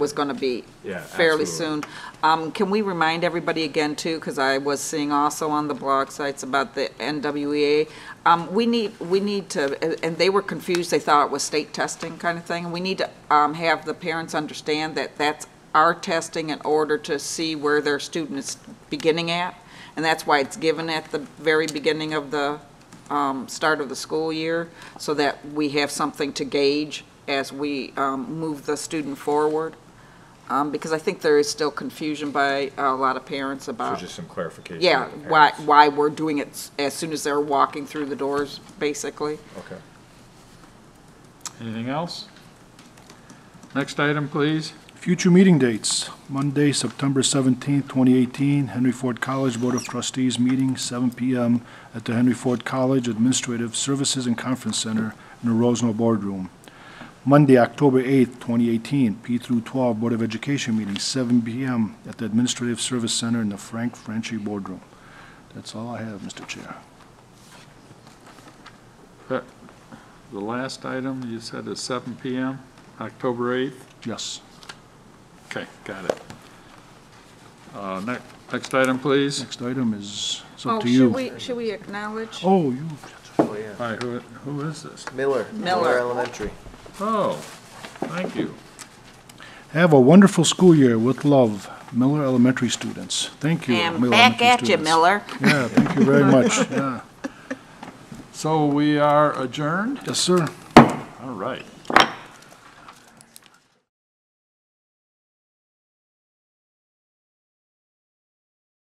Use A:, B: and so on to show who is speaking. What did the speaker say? A: was going to be
B: Yeah,
A: fairly soon.
B: absolutely.
A: Um, Can we remind everybody again, too, because I was seeing also on the blog sites about the NWEA, um, we need, we need to, and- and they were confused, they thought it was state testing kind of thing. We need to um, have the parents understand that that's our testing in order to see where their student is beginning at, and that's why it's given at the very beginning of the um, start of the school year, so that we have something to gauge as we um, move the student forward um, because I think there is still confusion by a lot of parents
B: So
A: about,
B: just some clarification.
A: Uh, yeah,
B: with the
A: why,
B: parents.
A: why we're doing it s- as soon as they're walking through the doors, basically.
B: Okay.
C: Anything else? Next item, please.
D: Future meeting dates, Monday, September 17th, 2018, Henry Ford College Board of Trustees meeting, 7 PM at the Henry Ford College Administrative Services and Conference Center in the Rosno Boardroom. Monday, October 8th, 2018, P through 12 Board of Education meeting, 7 PM at the Administrative Service Center in the Frank Franchi Boardroom. That's all I have, Mr. Chair.
C: The the last item you said is seven PM, October 8th?
D: Yes.
C: Okay, got it. Uh, next, next item, please.
D: Next item is, it's
A: Oh,
D: up to you.
A: Should we, should we acknowledge?
D: Oh, you,
E: Oh, yeah.
C: All right, who, who is this?
E: Miller.
A: Miller.
E: Elementary.
C: Oh, thank you.
D: Have a wonderful school year with love, Miller Elementary students. Thank you.
A: And
D: Miller
A: back
D: Elementary
A: at you,
D: students.
A: Miller.
D: Yeah, thank you very much. Yeah.
C: So we are adjourned?
D: Yes, sir.
C: All right.